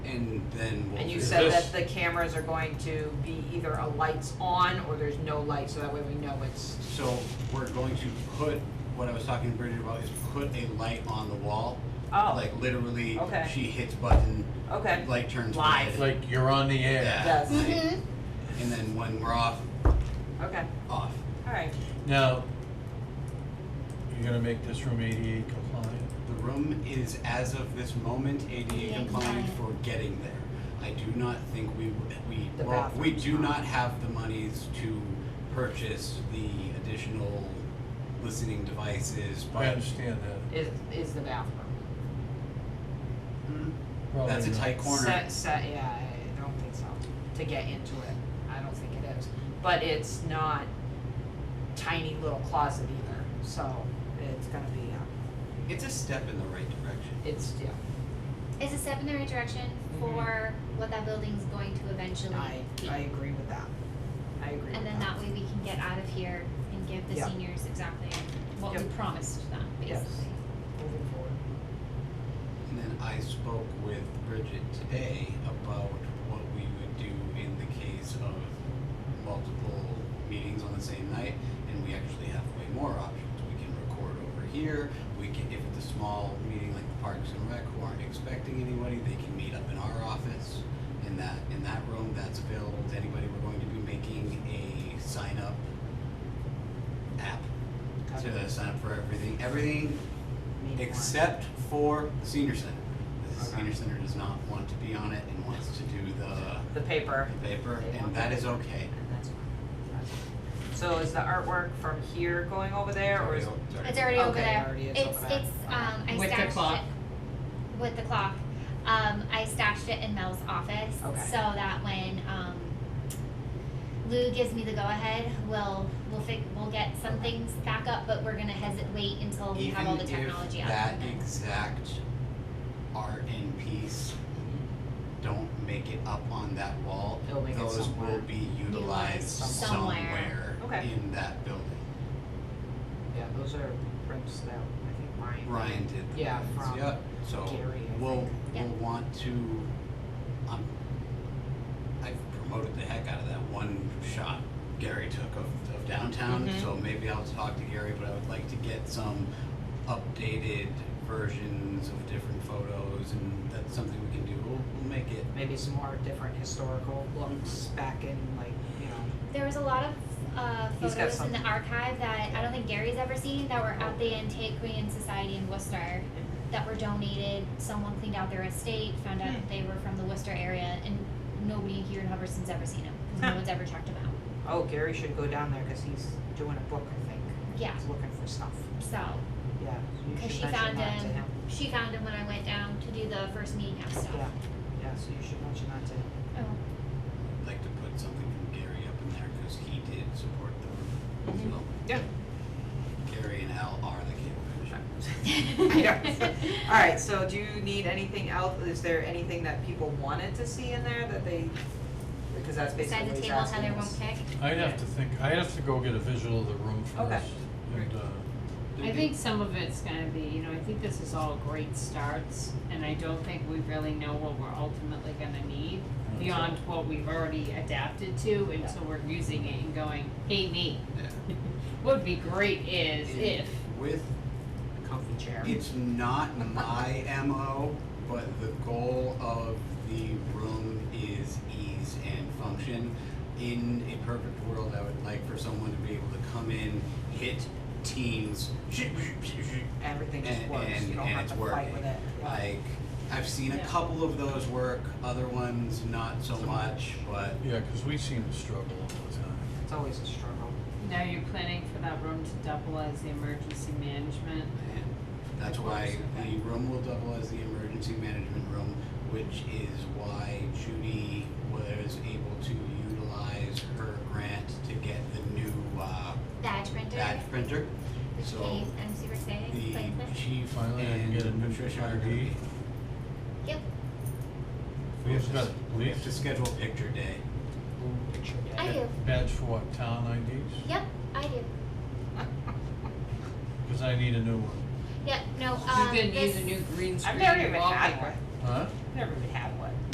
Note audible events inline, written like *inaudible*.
and then we'll. And you figure said it out. that the cameras are going to be either a lights on or there's no light, so that way we know it's, So we're going to put, what I was talking to Bridget about is put a light on the wall. oh, Like literally, Okay. she hits button, okay. light turns Live. red. Like you're on the air. Yeah. Yes. Mm-hmm. right? And then when we're off, Okay, off. all right. Now, you're gonna make this room ADA compliant? The room is, as of this moment, ADA Yeah, compliant compliant. for getting there. I do not think we, we, The well, we bathroom's do not. not have the monies to purchase the additional listening devices, I but understand that. Is, is the bathroom. Probably that's a not. tight corner. Set, set, yeah, I don't think so, to get into it, I don't think it is. But it's not tiny little closet either, so it's gonna be, uh, It's a step in the right direction. it's, yeah, It's a step in the right direction for what that building's going to eventually Mm-hmm. I, be. I agree with that. I agree with that. And then that way we can get out of here and give the Yeah. seniors exactly what we Yep. promised them, Yes. basically. Moving forward. And then I spoke with Bridget today about what we would do in the case of multiple meetings on the same night, and we actually have way more options. We can record over here, we can, if it's a small meeting like the Parks and Rec who aren't expecting anybody, they can meet up in our office. In that, in that room, that's available to anybody. We're going to be making a sign-up app to sign up for everything. Everything Need one. except for the senior center. The Okay. senior center does not want to be on it and wants to do the The paper, the paper, They want and that that. is okay. and that's fine, that's fine. So is the artwork from here going over there, or is? It's already over Okay, there. already is It's, over there. it's, um, I With the stashed it. clock. With the clock. Um, I stashed it in Mel's office, Okay. so that when, um, Lou gives me the go-ahead, we'll, we'll fi- we'll get some Okay. things back up, but we're gonna hesitate, wait until we have all the technology Even if up. and that then- exact art and piece don't make it up on that wall, It'll make it those somewhere. will be utilized Utilized somewhere Okay. in that building. Yeah, those are prints that I think Ryan. Ryan did the Yeah, plans, from yep, so Gary, I we'll, Yeah. we'll want to, um, I've promoted the heck out of that one shot Gary took of, of downtown, Mhm. so maybe I'll talk to Gary, but I would like to get some updated versions of different photos, and that's something we can do, we'll, we'll make it. Maybe some more different historical looks back in like, you know, There was a lot of uh, He's got photos in the some. archive that I don't think Gary's ever seen that were at the Antiquarian Society in Worcester that were donated. Someone cleaned out their estate, found out that they were from the Worcester area, and nobody here in Hubbardston's ever seen them because Huh. no one's ever checked them out. oh, Gary should go down there, cause he's doing a book, I think. Yeah. He's looking for stuff, So, yeah, you because she should mention found that to him, him. she found him when I went down to do the first meeting house stuff. Yeah, yeah, so you should mention that to him. Oh, I'd like to put something from Gary up in there, cause he did support the, Mhm. so. Yeah. *laughs* Gary and Al are the cable commission. Oh. *laughs* All right, so do you need anything else? Is there anything that people wanted to see in there that they, because that's basically beside what the he's table, asking Heather us. won't pick. I'd have to think, I'd have to go get a visual of the room Okay. first. And, uh, I think some of it's gonna be, you know, I think this is all great starts, and I don't think we really know what we're ultimately gonna need Okay. beyond what we've already adapted to, Yeah. and so we're using it and going, hey, me, Yeah. what'd be great is if. With Comfy chair. It's not my MO, but the goal of the room is ease and function. In a perfect world, I would like for someone to be able to come in, hit teams, and, Everything just works. You and, don't and have it's to working. fight with it. Yeah. Like, I've seen a Yeah. couple of those work, other ones not so much, but yeah, cause we seem to struggle all the time. It's always a struggle. Now you're planning for that room to double as the emergency management. And that's why the room will double as the emergency management room, which is why Judy was able to utilize her grant to get the new uh, Badge printer, badge printer. which So came, I'm super excited. The Like, chief Finally, I can and get a new Patricia are ID. gonna be- yep. We have s- to, We have to schedule picture day. Picture day. I do. badge for what, town IDs? Yep. I do. Cause I need a new one. Yep. No. You're Um, gonna need this- a new green *laughs* screen I've never even wallpaper. had one. Huh? Never even had